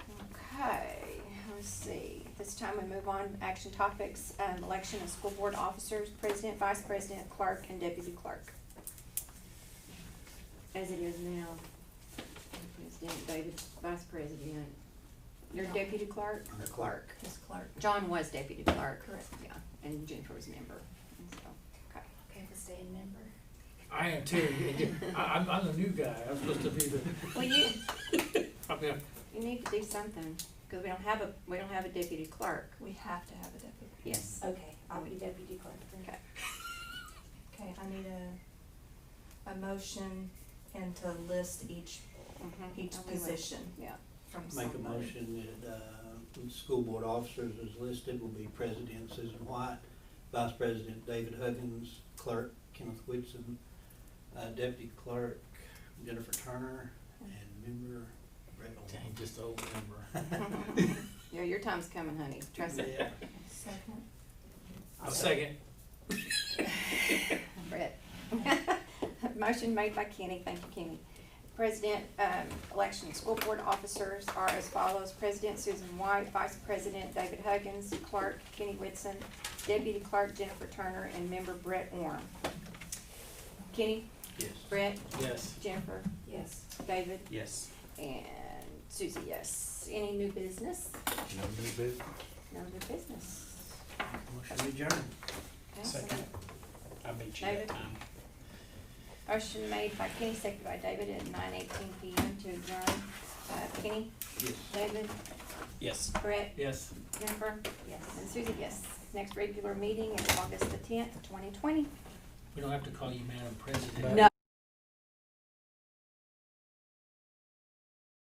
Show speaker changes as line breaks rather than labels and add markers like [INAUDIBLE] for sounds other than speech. Let's see, this time we move on, action topics, um, election of school board officers, president, vice president, clerk, and deputy clerk.
as it is now. President, David, Vice President,
Your
No.
deputy clerk,
The clerk.
Ms. Clark. John was deputy clerk.
Correct.
Yeah, and Jennifer was member, and so, okay.
okay, we'll stay in member.
I am too. I, I'm, I'm the new guy. I'm supposed to be the,
Well, you,
I'm the,
You need to do something, because we don't have a, we don't have a deputy clerk.
We have to have a deputy.
Yes.
okay, I'll be deputy clerk then.
Okay.
Okay, I need a, a motion and to list each,
Mhm.
each
Oh, we would.
position
Yeah.
from
Make
somebody.
a motion that, uh, school board officers as listed will be President Susan White, Vice President David Huggins, Clerk Kenneth Whitson, uh, Deputy Clerk Jennifer Turner, and member Brett
dang,
Owen.
just the old member.
Yeah, your time's coming, honey, trust me.
[LAUGHS] Yeah.
Second.
I'll second.
Brett.
[LAUGHS] Motion made by Kenny, thank you Kenny. President, um, election of school board officers are as follows. President Susan White, Vice President David Huggins, Clerk Kenny Whitson, Deputy Clerk Jennifer Turner, and Member Brett Orm. Kenny,
Yes.
Brett,
Yes.
Jennifer,
Yes.
David,
Yes.
and Susie, yes. Any new business?
No new business.
No new business.
Motion adjourned.
Second. I beat you
David?
that time.
Motion made by Kenny, seconded by David at nine eighteen P M to adjourn. Uh, Kenny,
Yes.
David,
Yes.
Brett,
Yes.
Jennifer,
Yes.
and Susie, yes. Next regular meeting is August the tenth, twenty twenty.
We don't have to call you Madam President.
No.